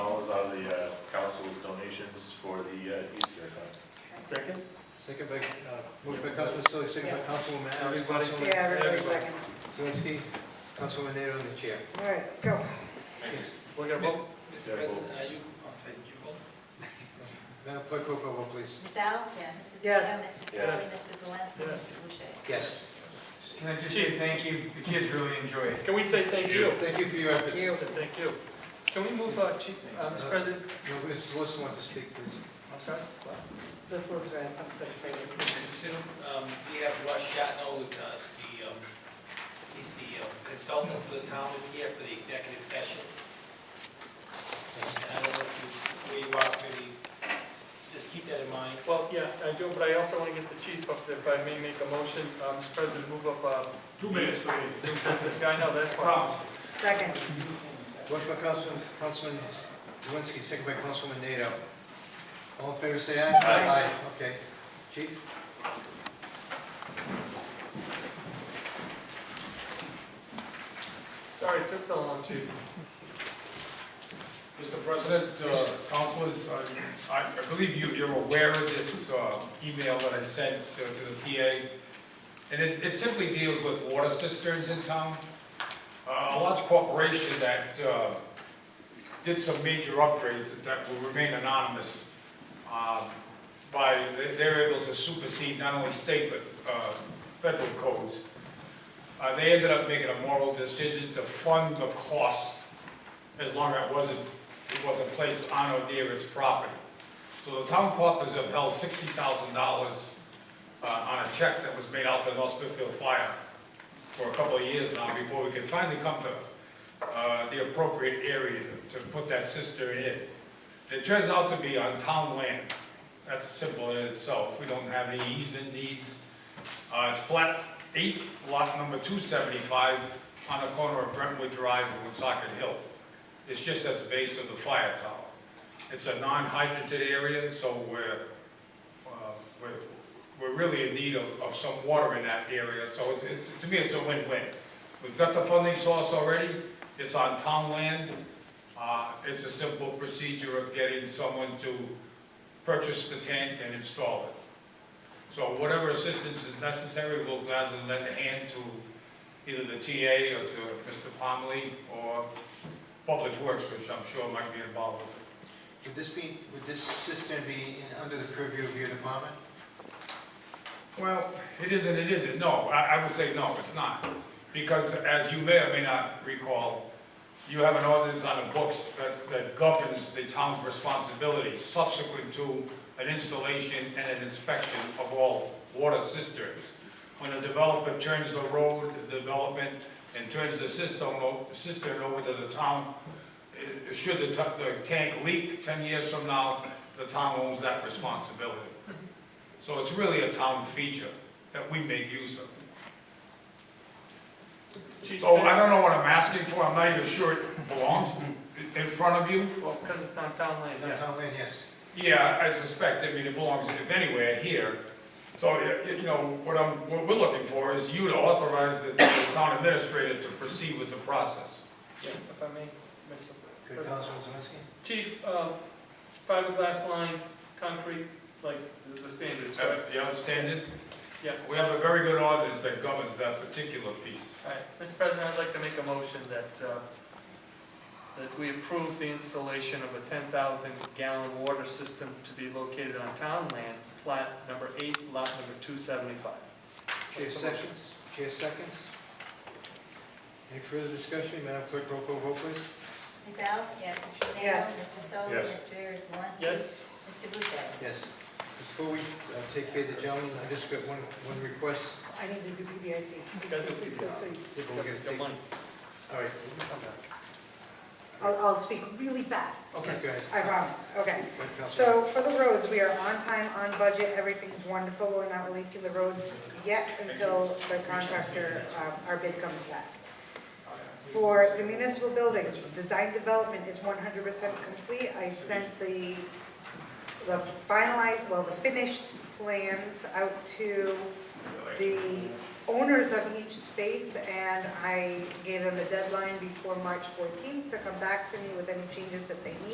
Second? Second by, uh, moved by Councilman Sully, second by Councilwoman Alves. Everybody. Councilwoman- Yeah, everybody second. Zelinski, Councilwoman Nato, and the chair. All right, let's go. Yes, we're gonna vote. Yeah, Mr. vote. President, are you, Oh, okay, you vote? Madam Clerk, roll call vote, please. Ms. Alves? Yes. Mrs. Yes. Beal, Mr. Saleh, Mr. Zelinski, Mr. Boucher. Yes. Can I just say thank you? The kids really enjoy it. Can we say thank you? Thank you for your efforts. You. Thank you. Can we move, uh, Chief, uh, Mr. President? No, Mrs. Wilson wants to speak, please. I'm sorry? This was read, something to say. Consider, um, we have Russ Shatno, who's, uh, the, um, he's the um, consultant for the town, is here for the executive session. And I don't know if you, where you are, maybe, just keep that in mind. Well, yeah, I do, but I also want to get the chief up there, if I may make a motion, um, Mr. President, move up, uh. Two minutes, New business, yeah, I know, that's why. Second, Motion by Councilman, Councilman Zelinski, second by Councilwoman Nato. All in favor, say aye. Aye. Okay. Chief? Sorry, it took so long, chief. Mr. President, uh, councilors, I- I I believe you- you're aware of this uh, email that I sent uh, to the TA, and it it simply deals with water cisterns in town. Uh, A large corporation that uh, did some major upgrades that- that will remain anonymous um, by, they- they're able to supersede not only state but uh, federal codes. Uh, They ended up making a moral decision to fund the cost as long as it wasn't, it wasn't placed on or near its property. So the town coffers have held sixty thousand dollars uh, on a check that was made out to North Smithfield Fire for a couple of years now before we could finally come to uh, the appropriate area to to put that cistern in. It turns out to be on town land. That's simple in itself. We don't have any easement needs. Uh, It's plat eight, lot number two seventy-five, on the corner of Brentwood Drive and Woonsocket Hill. It's just at the base of the fire tower. It's a non-hydrated area, so we're, uh, we're, we're really in need of, of some water in that area, so it's, it's, to me, it's a win-win. We've got the funding source already, it's on town land, uh, it's a simple procedure of getting someone to purchase the tank and install it. So whatever assistance is necessary, we'll gladly lend a hand to either the TA or to Mr. Pomley or Public Works, which I'm sure might be involved with it. Would this be, would this cistern be in- under the purview of your department? Well, it isn't, it isn't, no, I, I would say no, it's not. Because as you may or may not recall, you have an ordinance on the books that, that governs the town's responsibility subsequent to an installation and an inspection of all water cisterns. When a developer turns the road, the development, and turns the cistern, o- cistern over to the town, eh, should the, ta- the tank leak ten years from now, the town owns that responsibility. So it's really a town feature that we make use of. Chief, So I don't know what I'm asking for, I'm not even sure it belongs in front of you. well, because it's on town land, Is that yeah. town land? Yes. Yeah, I suspect, I mean, it belongs if anywhere here. So, y- y- you know, what I'm, what we're looking for is you to authorize the the town administrator to proceed with the process. Yeah, If I may, Mr. Good, President. Councilman Zelinski? Chief, uh, fiberglass line, concrete, like the the standards, Uh, right? You understand it? Yeah. We have a very good ordinance that governs that particular piece. All right, Mr. President, I'd like to make a motion that, uh, that we approve the installation of a 10,000 gallon water system to be located on town land, plat number eight, lot number 275. Chair That's the motion. seconds, chair seconds. Any further discussion, Madam Clerk, roll call vote, please. Ms. Alves? Yes. Mr. Beal, Yes. Mr. Saleh, Yes. Mr. Zelinski. Yes? Mr. Boucher. Yes. Before we uh, take care of the gentleman, I just got one, one request. I need to do PBIC. gotta do PBIC. Did we get a The take- money. All right. I'll, I'll speak really fast, Okay. Go ahead. I promise, Go okay. ahead, Councilman. So for the roads, we are on time, on budget, everything's wonderful, we're not releasing the roads yet until the contractor, um, our bid comes back. For the municipal buildings, design development is one hundred percent complete, I sent the, the finalized, well, the finished plans out to the owners of each space, and I gave them a deadline before March fourteenth to come back to me with any changes that they need.